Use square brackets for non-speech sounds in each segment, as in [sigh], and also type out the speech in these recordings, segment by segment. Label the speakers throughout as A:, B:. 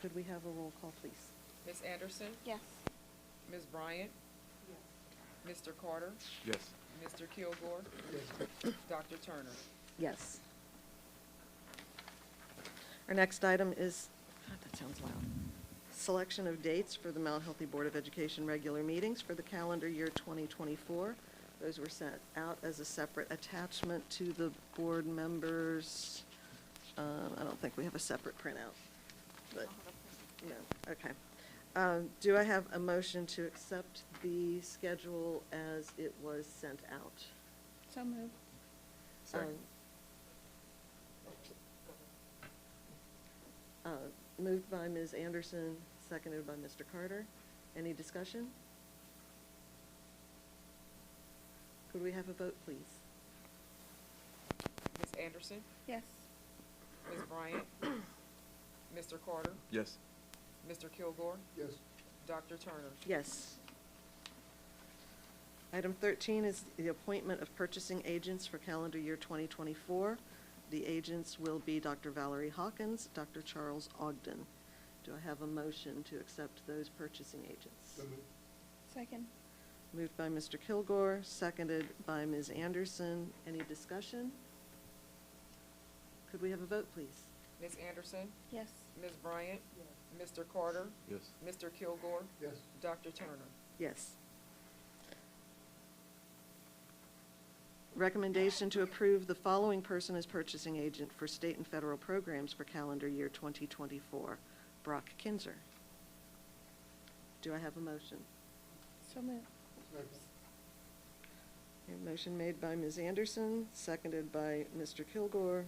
A: Could we have a roll call, please?
B: Ms. Anderson?
C: Yes.
B: Ms. Bryant? Mr. Carter?
D: Yes.
B: Mr. Kilgore? Dr. Turner?
A: Yes. Our next item is, God, that sounds loud. Selection of dates for the Mount Healthy Board of Education regular meetings for the calendar year 2024. Those were sent out as a separate attachment to the board members. Um, I don't think we have a separate printout, but, no, okay. Um, Do I have a motion to accept the schedule as it was sent out?
C: So moved.
D: Second.
A: Um, uh, Moved by Ms. Anderson, seconded by Mr. Carter. Any discussion? Could we have a vote, please?
B: Ms. Anderson?
C: Yes.
B: Ms. Bryant? Mr. Carter?
D: Yes.
B: Mr. Kilgore?
E: Yes.
B: Dr. Turner?
A: Yes. Item 13 is the appointment of purchasing agents for calendar year 2024. The agents will be Dr. Valerie Hawkins, Dr. Charles Ogden. Do I have a motion to accept those purchasing agents?
E: So moved.
C: Second.
A: Moved by Mr. Kilgore, seconded by Ms. Anderson. Any discussion? Could we have a vote, please?
B: Ms. Anderson?
C: Yes.
B: Ms. Bryant? Mr. Carter?
D: Yes.
B: Mr. Kilgore?
E: Yes.
B: Dr. Turner?
A: Yes. Recommendation to approve the following person as purchasing agent for state and federal programs for calendar year 2024. Brock Kinzer. Do I have a motion?
C: So moved.
E: Second.
A: A motion made by Ms. Anderson, seconded by Mr. Kilgore.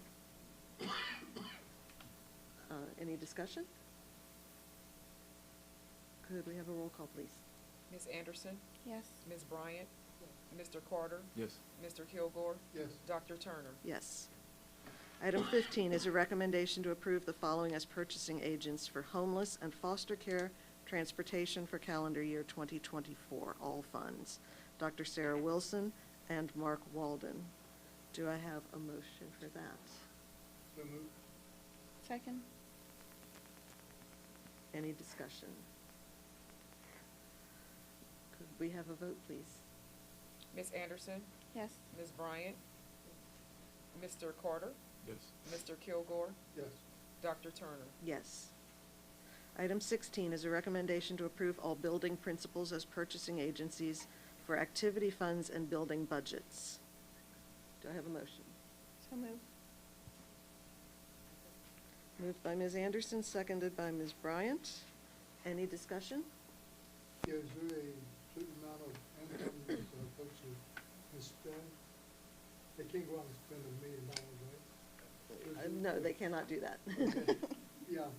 A: Uh, Any discussion? Could we have a roll call, please?
B: Ms. Anderson?
C: Yes.
B: Ms. Bryant? Mr. Carter?
D: Yes.
B: Mr. Kilgore?
E: Yes.
B: Dr. Turner?
A: Yes. Item 15 is a recommendation to approve the following as purchasing agents for homeless and foster care transportation for calendar year 2024, all funds. Dr. Sarah Wilson and Mark Walden. Do I have a motion for that?
E: So moved.
C: Second.
A: Any discussion? Could we have a vote, please?
B: Ms. Anderson?
C: Yes.
B: Ms. Bryant? Mr. Carter?
D: Yes.
B: Mr. Kilgore?
E: Yes.
B: Dr. Turner?
A: Yes. Item 16 is a recommendation to approve all building principals as purchasing agencies for activity funds and building budgets. Do I have a motion?
C: So moved.
A: Moved by Ms. Anderson, seconded by Ms. Bryant. Any discussion?
E: Is there a certain amount of income that uh, folks who can spend? They can't go out and spend a million dollars, right?
A: Uh, No, they cannot do that. [laughs]
E: Okay. Yeah,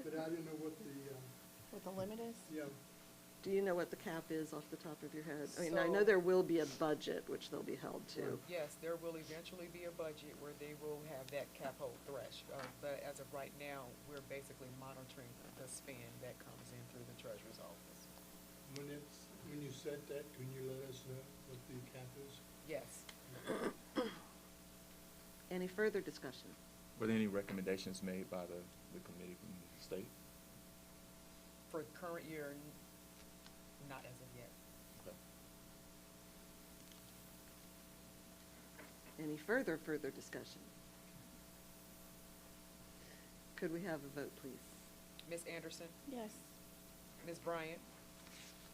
E: but I didn't know what the, uh,
C: What the limit is?
E: yeah,
A: Do you know what the cap is off the top of your head? I mean, I know
B: So-
A: there will be a budget, which they'll be held to.
E: Right.
B: Yes, there will eventually be a budget where they will have that capital thresh, uh, but as of right now, we're basically monitoring the spend that comes in through the treasurer's office.
E: when it's, when you set that, can you let us know what the cap is?
B: Yes,
A: Any further discussion?
D: Were there any recommendations made by the, the committee from the state?
B: for current year, n- not as of yet.
D: Okay.
A: Any further, further discussion? Could we have a vote, please?
B: Ms. Anderson,
C: Yes.
B: Ms. Bryant,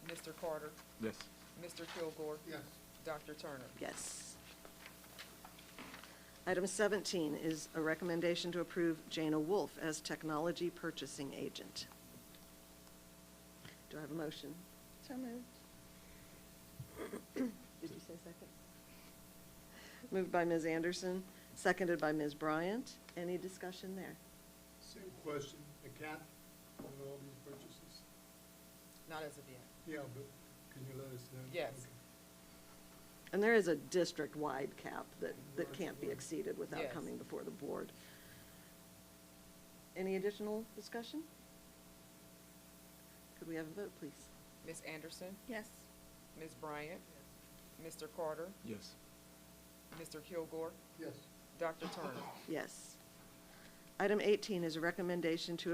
B: Mr. Carter,
D: Yes.
B: Mr. Kilgore,
E: Yes.
B: Dr. Turner.
A: Yes. Item 17 is a recommendation to approve Jana Wolf as technology purchasing agent. Do I have a motion?
C: So moved.
A: Did you say second? Moved by Ms. Anderson, seconded by Ms. Bryant. Any discussion there?
E: Same question, the cap on all these purchases?
B: Not as of yet.
E: Yeah, but can you let us know?
B: Yes.
E: Okay.
A: And there is a district-wide cap that, that can't be exceeded without
B: Yes.
A: coming before the board. Any additional discussion? Could we have a vote, please?
B: Ms. Anderson,
C: Yes.
B: Ms. Bryant, Mr. Carter,
D: Yes.
B: Mr. Kilgore,
E: Yes.
B: Dr. Turner.
A: Yes. Item 18 is a recommendation to